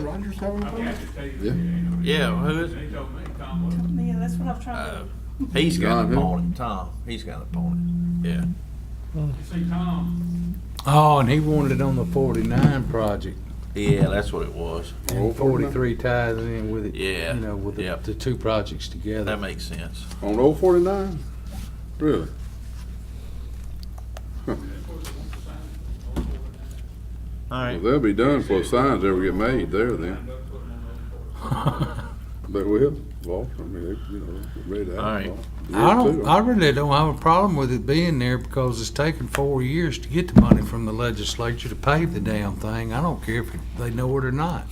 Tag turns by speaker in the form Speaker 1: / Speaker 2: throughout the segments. Speaker 1: Rogers having
Speaker 2: I mean, I
Speaker 1: fun?
Speaker 2: just tell you.
Speaker 1: Yeah.
Speaker 3: Yeah, who is it?
Speaker 2: They told me, Tom Wood.
Speaker 4: Yeah, that's what I was trying to.
Speaker 3: He's got
Speaker 1: John
Speaker 3: an
Speaker 1: who?
Speaker 3: opponent, Tom. He's got an opponent. Yeah.
Speaker 2: You see, Tom,
Speaker 5: Oh, and he wanted it on the forty-nine project.
Speaker 3: Yeah, that's what it was.
Speaker 5: And forty-three ties in with it.
Speaker 3: Yeah,
Speaker 5: You know, with the,
Speaker 3: yep.
Speaker 5: the two projects
Speaker 3: That
Speaker 5: together.
Speaker 3: makes sense.
Speaker 1: On old forty-nine? Really?
Speaker 2: of course, he wants to sign it. Old boy,
Speaker 3: All
Speaker 1: Well,
Speaker 3: right.
Speaker 1: they'll be done before signs ever get made there
Speaker 2: and
Speaker 1: then.
Speaker 2: they'll put him on the old boy.
Speaker 1: They will, well, I mean, they, you know, they're ready to. have
Speaker 3: All right.
Speaker 1: it.
Speaker 5: I don't,
Speaker 1: Yeah,
Speaker 5: I really don't have a problem with it being there because it's taken four years to get the money from the legislature to pave the damn thing. I don't care if they know it or not.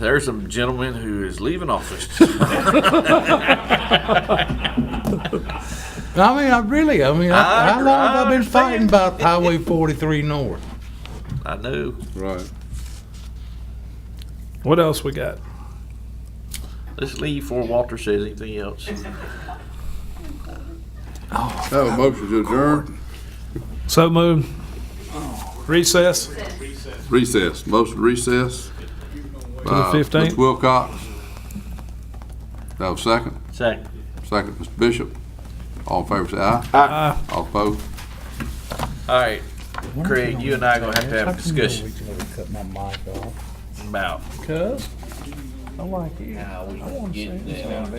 Speaker 3: There's a gentleman who is leaving office.
Speaker 5: I mean, I really, I mean,
Speaker 3: I-
Speaker 5: I- how long have I
Speaker 3: I
Speaker 5: been fighting
Speaker 3: understand.
Speaker 5: about Highway forty-three north?
Speaker 3: I know.
Speaker 1: too. Right.
Speaker 6: What else we got?
Speaker 3: Let's leave before Walter says anything else.
Speaker 1: Have a motion to adjourn,
Speaker 6: So moved. Recess.
Speaker 1: recess, motion to recess. To
Speaker 6: the 15th?
Speaker 1: Mr. Wilcox. That was second,
Speaker 3: Second.
Speaker 1: second, Mr. Bishop. All in favor, say aye.
Speaker 6: Aye.
Speaker 1: All opposed?
Speaker 3: All right, Craig, you and I gonna have to have a discussion
Speaker 5: Cut Oh, my mic off.
Speaker 3: about
Speaker 5: Cuz, I like it.
Speaker 3: how we can
Speaker 5: wanna say
Speaker 3: get that out.